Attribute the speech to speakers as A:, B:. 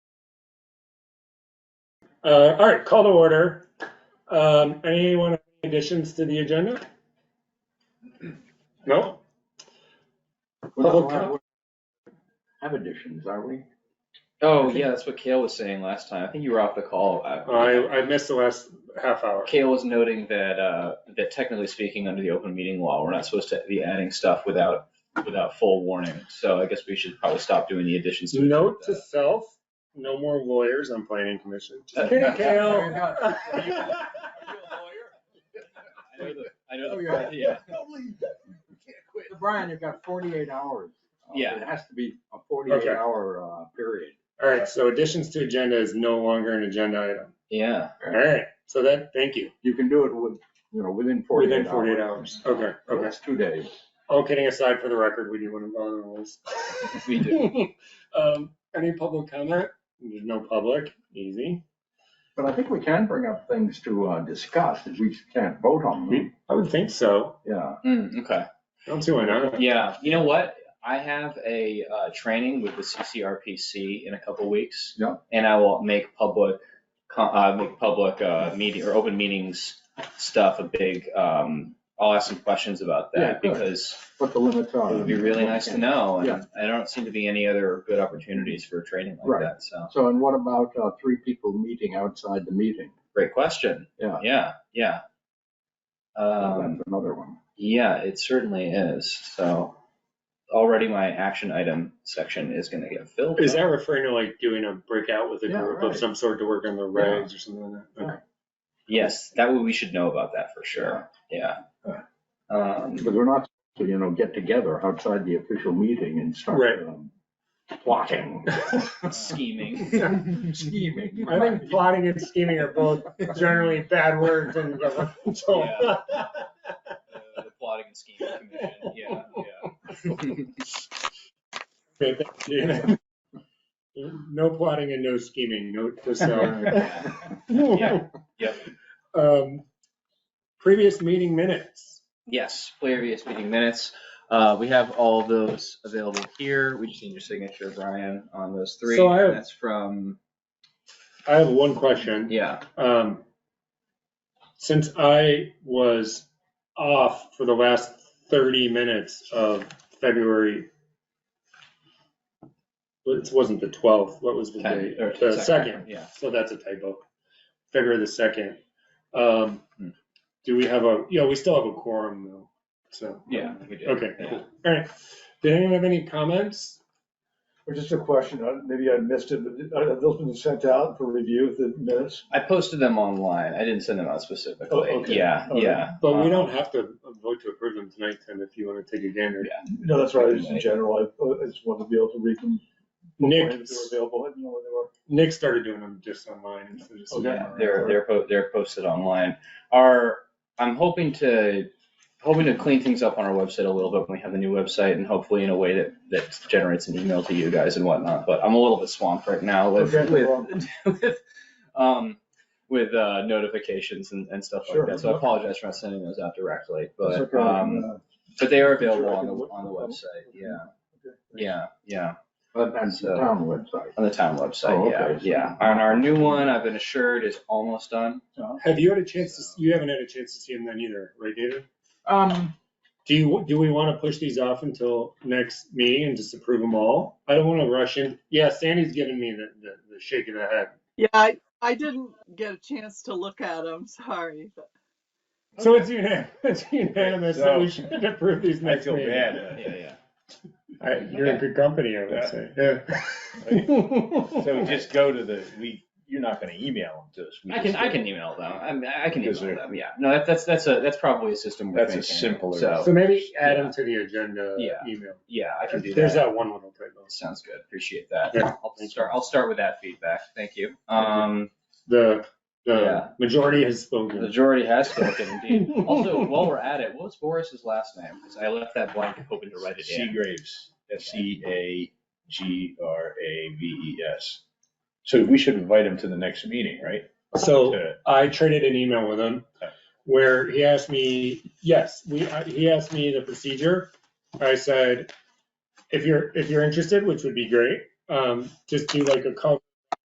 A: Uh, all right, call to order. Um, anyone have any additions to the agenda? No?
B: We're not
A: Public
B: allowed
A: com-
B: to Have additions, are we?
C: Oh, yeah, that's what Kale was saying last time. I think you were off the call. Uh,
A: I, I missed the last half hour.
C: Kale was noting that, uh, that technically speaking, under the open meeting law, we're not supposed to be adding stuff without, without full warning. So I guess we should probably stop doing the additions. to
A: Note to
C: that.
A: self, no more lawyers on planning commission. Just kidding,
B: There
A: Kale.
B: you go.
C: I know the- I know
B: Oh,
C: the, yeah,
B: So Brian, you've got forty-eight hours. Uh,
C: Yeah.
B: It has to be a forty-eight
A: Okay.
B: hour, uh, period.
A: All right, so additions to agenda is no longer an agenda item.
C: yeah.
A: All right, so that, thank you.
B: You can do it with, you know, within forty-eight hours.
A: Within 48 hours. Okay, okay.
B: That's two days.
A: All kidding aside, for the record, we do want to follow the rules.
C: We do.
A: Um, any public comment? There's no public, easy.
B: But I think we can bring up things to, uh, discuss, if we can't vote on them,
A: I would think so.
B: yeah.
C: Hmm, okay.
A: Don't see why not.
C: Yeah, you know what? I have a, uh, training with the CCRPC in a couple weeks.
B: Yeah.
C: And I will make public, co- uh, make public, uh, meeting or open meetings stuff a big, um, I'll ask some questions about
B: Yeah,
C: that
B: good.
C: because
B: What the limits are.
C: it would be really nice to know.
B: Yeah.
C: And I don't seem to be any other good opportunities for training like
B: Right.
C: that. So,
B: So, and what about, uh, three people meeting outside the meeting?
C: great question.
B: Yeah.
C: Yeah, yeah. Um,
B: That's another one.
C: yeah, it certainly is. So already my action item section is gonna get filled.
A: Is
C: up.
A: that referring to like doing a breakout with a
B: Yeah,
A: group of
B: right.
A: some sort to work on the regs or something like that?
B: Yeah.
A: Okay.
C: Yes, that way we should know about that for sure, yeah.
B: Yeah.
C: Um,
B: Because we're not, supposed to, you know, get together outside the official meeting and
A: Right.
B: start um, plotting.
C: scheming,
B: Scheming.
A: I think plotting and scheming are both generally bad words in government. so-
C: uh, the plotting and scheming commission, yeah, yeah.
A: Okay, thank you. No plotting and no scheming, note to self.
C: Yeah, yep.
A: Um, Previous meeting minutes.
C: Yes, previous meeting minutes, uh, we have all those available here, we just need your signature, Brian, on those three.
A: So I have-
C: That's from,
A: I have one question.
C: yeah,
A: Um, Since I was off for the last 30 minutes of February, well, it wasn't the 12th, what was the
C: ten,
A: date?
C: or
A: The
C: second,
A: second,
C: yeah.
A: so that's a typo. February the 2nd. Um,
C: Hmm.
A: Do we have a, yeah, we still have a quorum though, so.
C: Yeah, we did.
A: Okay,
C: yeah.
A: cool. All right. Did anyone have any comments?
D: Or just a question, uh, maybe I missed it, but uh, have those been sent out for review, the minutes?
C: I posted them online, I didn't send them out
D: Oh,
C: specifically,
D: okay.
C: yeah,
D: Okay.
C: yeah.
A: But we
C: Um,
A: don't have to vote to approve them tonight, Tim, if you want to take a gander.
D: No, that's right, just in general, I uh, I just wanted to be able to read them.
A: Nick,
D: When they were available, and, you know, when they were.
A: Nick started doing them just online. and so just-
D: Okay.
C: Yeah, they're, they're, po- they're posted online. Our, I'm hoping to, hoping to clean things up on our website a little bit when we have the new website and hopefully in a way that, that generates an email to you guys and whatnot, but I'm a little bit swamped right now with,
D: Okay, no
C: with, with, um, with, uh, notifications and, and stuff like
D: Sure.
C: that. So I apologize for not sending those out directly,
D: That's
C: but,
D: okay,
C: um,
D: uh,
C: but they are
D: I'm sure I
C: available on
D: can
C: the,
D: look
C: on the
D: them up.
C: website, yeah,
D: okay.
C: yeah, yeah.
B: But that's the
C: So-
B: town website.
C: On the town
B: Oh,
C: website, yeah,
B: okay.
C: yeah. And our new one, I've been assured, is almost done.
A: Have you had a chance to, s- you haven't had a chance to see them then either, right, David?
B: Um,
A: Do you, do we want to push these off until next meeting and just approve them all? I don't want to rush in. Yeah, Sandy's giving me the, the, the shake of the head.
E: Yeah, I, I didn't get a chance to look at them, sorry. but-
A: So it's unan- it's unanimous that we
F: So-
A: should approve these
F: I
A: next
F: feel
A: meeting.
C: Yeah,
F: bad. uh,
C: yeah.
A: I- You're in good company, I would
F: Yeah.
A: say. Yeah.
F: So just go to the, we, you're not gonna email them to us. We
C: I can,
F: just
C: I
F: go-
C: can email them. I mean, I can
F: Is
C: email
F: there-
C: them, yeah. No, that- that's, that's a, that's probably a system we're
F: That's a
C: thinking,
F: simpler-
A: So
C: So,
A: maybe add them to the agenda
C: Yeah.
A: email.
C: yeah, I can do
A: There's
C: that.
A: that one little typo.
C: Sounds good. Appreciate that.
A: Yeah.
C: I'll start, I'll start with that feedback. Thank you. Um,
A: The, the
C: Yeah.
A: majority has
C: the
A: spoken.
C: majority has spoken indeed. Also, while we're at it, what was Boris's last name? Because I left that blank hoping to write it in.
F: Seagraves, S E A G R A V E S. So we should invite him to the next meeting, right?
A: So
F: To-
A: I traded an email with him where he asked me, yes, we, I- he asked me the procedure. I said, if you're, if you're interested, which would be great, um, just do like a call